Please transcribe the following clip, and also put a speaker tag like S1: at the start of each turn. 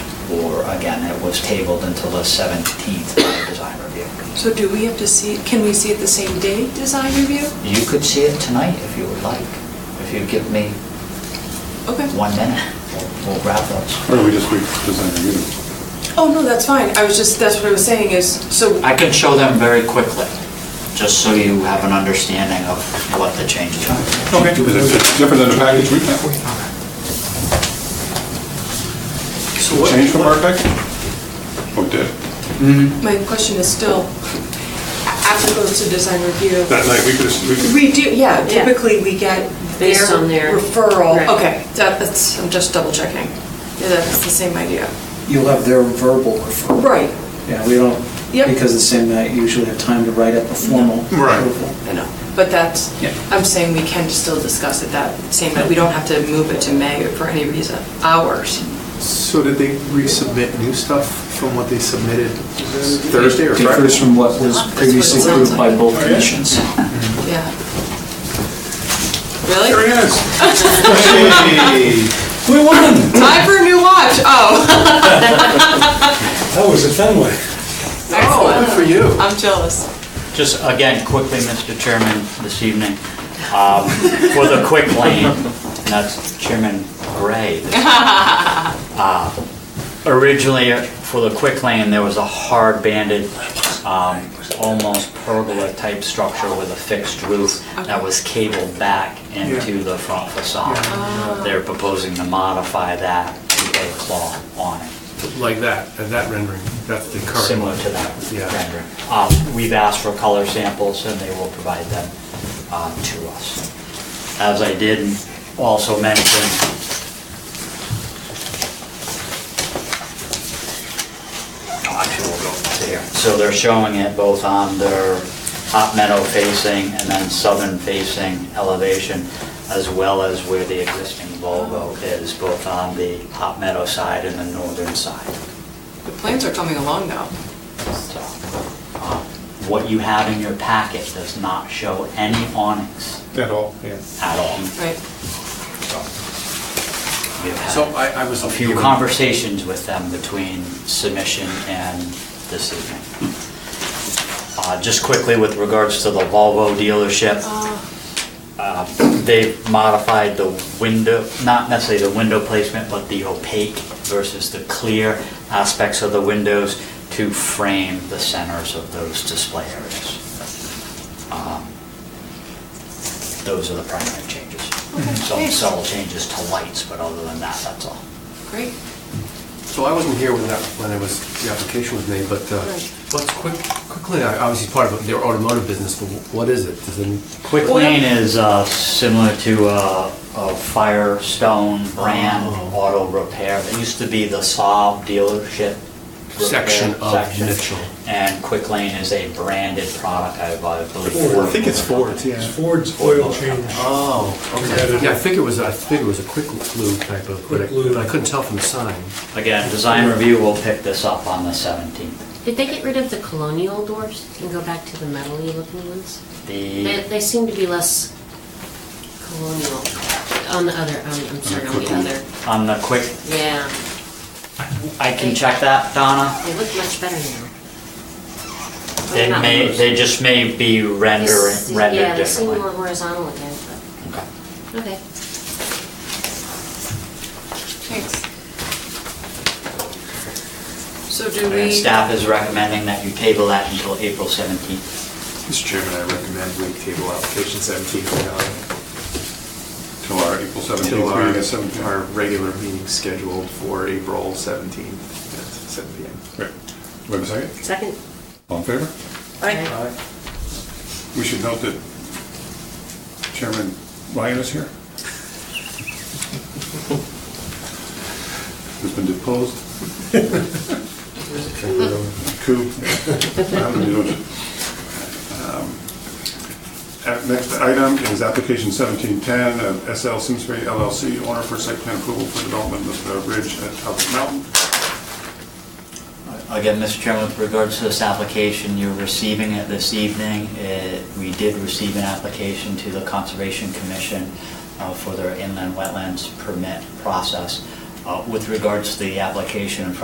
S1: or again, it was tabled until the 17th by design review.
S2: So do we have to see, can we see it the same day, design review?
S1: You could see it tonight if you would like, if you give me
S2: Okay.
S1: one minute, we'll- we'll grab those.
S3: Or do we just wait for design review?
S2: Oh, no, that's fine. I was just, that's what I was saying is, so.
S1: I can show them very quickly, just so you have an understanding of what the changes are.
S3: Okay. Is it different than the package we have?
S4: So what-
S3: Change from our package? Oh, it did.
S2: My question is still, after it goes to design review.
S3: That night, we could have, we could-
S2: We do, yeah,
S4: Yeah.
S2: typically we get their
S4: Based on their-
S2: referral.
S4: Right.
S2: Okay, that- that's, I'm just double checking. Yeah, that's the same idea.
S5: You'll have their verbal referral.
S2: Right,
S5: Yeah, we don't,
S2: Yep.
S5: because it's in that, you usually have time to write up a formal
S3: Right.
S5: approval.
S2: I know, but that's,
S5: Yeah.
S2: I'm saying we can still discuss it that same, night. we don't have to move it to May for any reason, ours.
S6: So did they resubmit new stuff from what they submitted Thursday or Friday?
S5: Differs from what was
S2: That's what it
S5: previously
S2: sounds
S5: approved by
S2: like.
S5: both commissions.
S2: Yeah. Really?
S3: there it is. Hey.
S7: We won!
S2: Time for a new watch, oh.
S7: That was at Fenway.
S2: Excellent.
S6: Oh, for you.
S2: I'm jealous.
S1: Just again, quickly, Mr. Chairman, this evening, um, for the quick lane, and that's Chairman Gray. Uh, Originally, uh, for the quick lane, there was a hard banded, um, almost pergola type structure with a fixed roof that was cabled back into the front facade. They're proposing to modify that to a claw on it
S8: like that, uh, that rendering, that's the current.
S1: similar
S8: one.
S1: to that
S8: Yeah.
S1: rendering. Um, We've asked for color samples, and they will provide them um, to us. As I did also mention, Oh, actually, we'll go to here. so they're showing it both on their hot meadow facing and then southern facing elevation, as well as where the existing logo is, both on the hot meadow side and the northern side.
S2: The plans are coming along now.
S1: So, uh, What you have in your packet does not show any awnings
S3: At all, yeah.
S1: at all.
S2: Right.
S1: We have had
S4: So I, I was.
S1: A few conversations with them between submission and this evening. Uh, Just quickly with regards to the Volvo dealership, uh, they modified the window, not necessarily the window placement, but the opaque versus the clear aspects of the windows to frame the centers of those display areas. Um, Those are the primary changes. Some
S2: thanks.
S1: subtle changes to lights, but other than that, that's all.
S2: Great.
S8: So I wasn't here when that, when it was, the application was made, but, uh,
S2: Right.
S8: what's quick, quickly, I- obviously part of their automotive business, but what is it? Does it?
S1: Quick Lane is uh, similar to uh, a Firestone brand
S8: Oh.
S1: auto repair. It used to be the Saab dealership. repair
S8: Section of
S1: section.
S8: Mitchell.
S1: And Quick Lane is a branded product, I I believe.
S7: Ford.
S1: Ford
S7: I think
S1: was the
S8: Ford.
S7: It's Ford's oil change.
S1: Uh,
S8: Oh,
S7: Competitive.
S8: okay. Yeah, I figured it was, I figured it was a quick glue type of, but I-
S7: Quick glue.
S8: but I couldn't tell from the sign.
S1: company. Again, design review will pick this up on the 17th.
S4: Did they get rid of the colonial doors and go back to the metal-y looking ones? They,
S1: The,
S4: they seem to be less colonial on the other, um, I'm sorry, on the other.
S1: on the Quick,
S4: Yeah,
S1: I can check that, Donna.
S4: they look much better now.
S1: They
S4: Not
S1: may,
S4: those.
S1: they just may be render
S4: They- Yeah,
S1: rendered
S4: they seem
S1: differently.
S4: more horizontal again,
S1: Okay.
S4: but, okay.
S2: Thanks. So do we?
S1: And staff is recommending that you table that until April 17th.
S6: Mr. Chairman, I recommend we table application 17
S3: Till our April
S6: until
S3: 17th, meeting at
S6: our, our
S3: 7:00.
S6: regular meeting scheduled for April 17th at 7 PM.
S3: Wait wait a second,
S4: Second?
S3: all in favor?
S2: Aye.
S3: We should note that Chairman Ryan is here. Who's been deposed. Coup. How do you do it? Um, uh, Next item is application 1710 of SL Simsbury LLC, owner for site plan approval for development of the ridge at Talbot Mountain.
S1: Again, Mr. Chairman, with regards to this application, you're receiving it this evening. It- We did receive an application to the Conservation Commission uh, for their inland wetlands permit process. Uh, With regards to the application in front